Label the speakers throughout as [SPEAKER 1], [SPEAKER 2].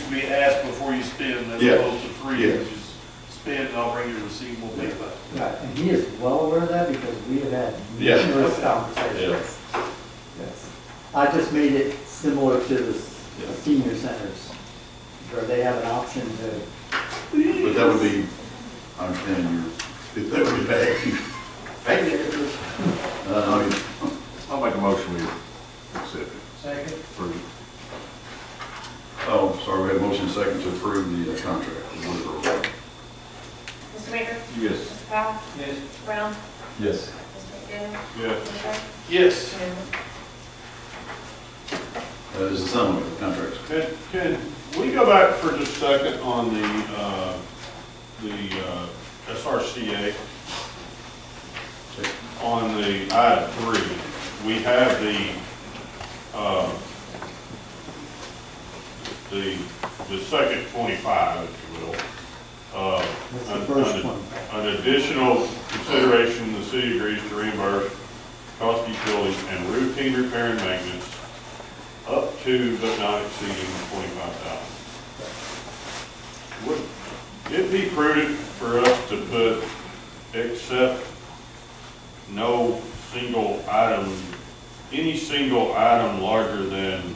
[SPEAKER 1] to be asked before you spend, as
[SPEAKER 2] Yeah.
[SPEAKER 1] opposed to free,
[SPEAKER 2] Yeah.
[SPEAKER 1] which is spend, and I'll bring you a receipt, we'll pay back.
[SPEAKER 3] Right, and he is well aware of that because we have had
[SPEAKER 2] Yeah.
[SPEAKER 3] numerous conversations. Yes. I just made it similar to the s-
[SPEAKER 2] Yeah.
[SPEAKER 3] senior centers, where they have an option to,
[SPEAKER 2] But that would be, I understand your, that would be bad. Um,
[SPEAKER 4] I'll make a motion we accept it
[SPEAKER 1] Second.
[SPEAKER 4] for
[SPEAKER 2] Oh, sorry, we have motion second to approve the uh, contract. We'll do it.
[SPEAKER 5] Mr. Baker?
[SPEAKER 4] Yes.
[SPEAKER 5] Mr. Powell?
[SPEAKER 1] Yes.
[SPEAKER 5] Mr. Brown?
[SPEAKER 4] Yes.
[SPEAKER 5] Mr. McDaniel?
[SPEAKER 4] Yes.
[SPEAKER 5] Mr. Sharp?
[SPEAKER 1] Yes,
[SPEAKER 2] That is the summary of the contract.
[SPEAKER 6] Can, can we go back for just a second on the, uh, the uh, SRCA? On the item three, we have the, uh, the, the second twenty-five, if you will. Uh,
[SPEAKER 3] that's
[SPEAKER 6] an-
[SPEAKER 3] the first
[SPEAKER 6] an-
[SPEAKER 3] one.
[SPEAKER 6] An additional consideration, the city agrees to reimburse cost of utilities and routine repair and maintenance up to but not exceeding twenty-five thousand. Would it be prudent for us to put except no single item, any single item larger than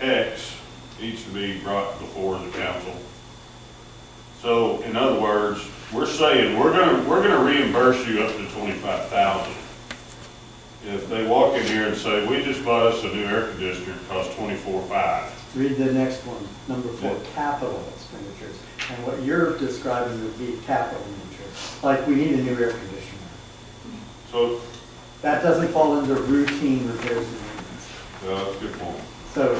[SPEAKER 6] X needs to be brought before the council? So in other words, we're saying, we're gonna, we're gonna reimburse you up to twenty-five thousand. If they walk in here and say, we just bought us a new air conditioner, it costs twenty-four five.
[SPEAKER 3] Read the next one, number four, capital expenditures. And what you're describing would be capital expenditures, like we need a new air conditioner.
[SPEAKER 6] So,
[SPEAKER 3] That doesn't fall under routine repairs and maintenance.
[SPEAKER 6] uh, that's a good point.
[SPEAKER 3] So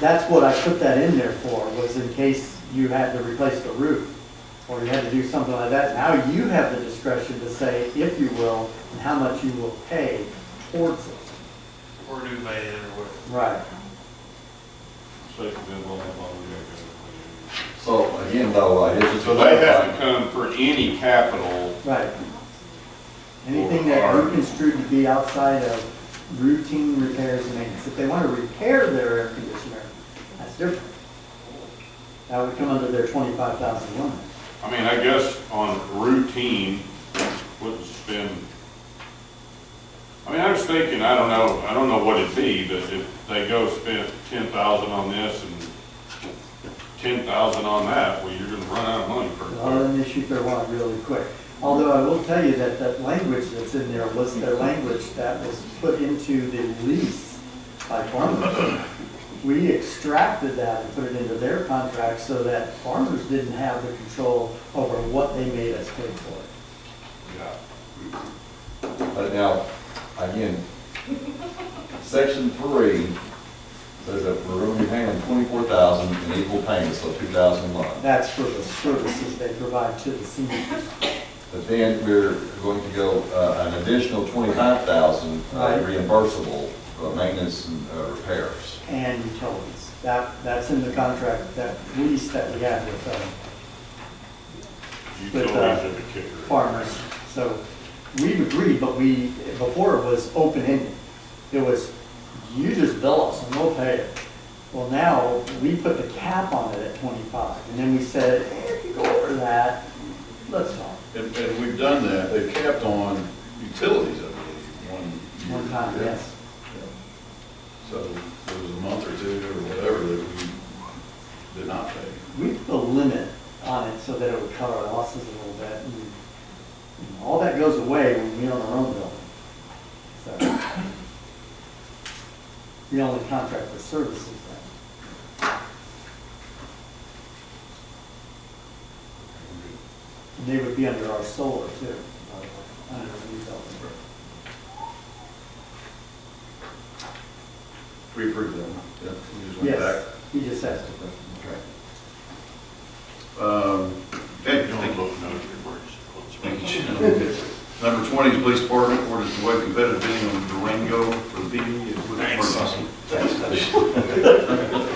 [SPEAKER 3] that's what I put that in there for, was in case you had to replace the roof, or you had to do something like that. Now you have the discretion to say, if you will, and how much you will pay towards it.
[SPEAKER 1] or do man, or whatever.
[SPEAKER 3] Right.
[SPEAKER 6] Safety, blah, blah, blah, blah, blah.
[SPEAKER 7] So again, though, I guess it's.
[SPEAKER 6] So they have to come for any capital,
[SPEAKER 3] Right. Anything that you construe to be outside of routine repairs and maintenance. If they want to repair their air conditioner, that's different. That would come under their twenty-five thousand limit.
[SPEAKER 6] I mean, I guess on routine, wouldn't spend. I mean, I was thinking, I don't know, I don't know what it'd be, but if they go spend ten thousand on this and ten thousand on that, well, you're gonna run out of money pretty
[SPEAKER 3] Well,
[SPEAKER 6] quick.
[SPEAKER 3] then they shoot their warrant really quick. Although I will tell you that that language that's in there was the language that was put into the lease by farmers. We extracted that and put it into their contract so that farmers didn't have the control over what they made us pay for.
[SPEAKER 6] Yeah.
[SPEAKER 7] But now, again, section three says that we're only paying twenty-four thousand in equal payments, so two thousand a month.
[SPEAKER 3] That's for the services they provide to the seniors.
[SPEAKER 7] But then we're going to go, uh, an additional twenty-five thousand uh,
[SPEAKER 3] Right.
[SPEAKER 7] reimbursable for maintenance and uh, repairs.
[SPEAKER 3] and utilities. That, that's in the contract, that lease that we had with uh,
[SPEAKER 6] Utilities are the kicker.
[SPEAKER 3] farmers. So we've agreed, but we, before it was open-ended. It was, you just bill us and we'll pay it. Well, now, we put the cap on it at twenty-five, and then we said, "Eh, if you go over that, let's talk.
[SPEAKER 2] And, and we've done that, they capped on utilities, I believe, one. year.
[SPEAKER 3] One time, yes.
[SPEAKER 2] So there was a month or two or whatever that we did not pay.
[SPEAKER 3] We put a limit on it so that it would cut our losses a little bit. and and All that goes away when we own our own building. So We only contract for services then. And They would be under our solar too, uh, under the new building.
[SPEAKER 2] We approved that one. Yeah, we just went
[SPEAKER 3] Yes,
[SPEAKER 2] back.
[SPEAKER 3] he just asked a question.
[SPEAKER 2] Okay. Um, okay,
[SPEAKER 6] You
[SPEAKER 2] thank
[SPEAKER 6] don't
[SPEAKER 2] you.
[SPEAKER 6] look, no, you're
[SPEAKER 2] Thank you, Jim. Number twenty is police department, orders to waive competitive bidding on Durango for the PD. Thanks. Oh,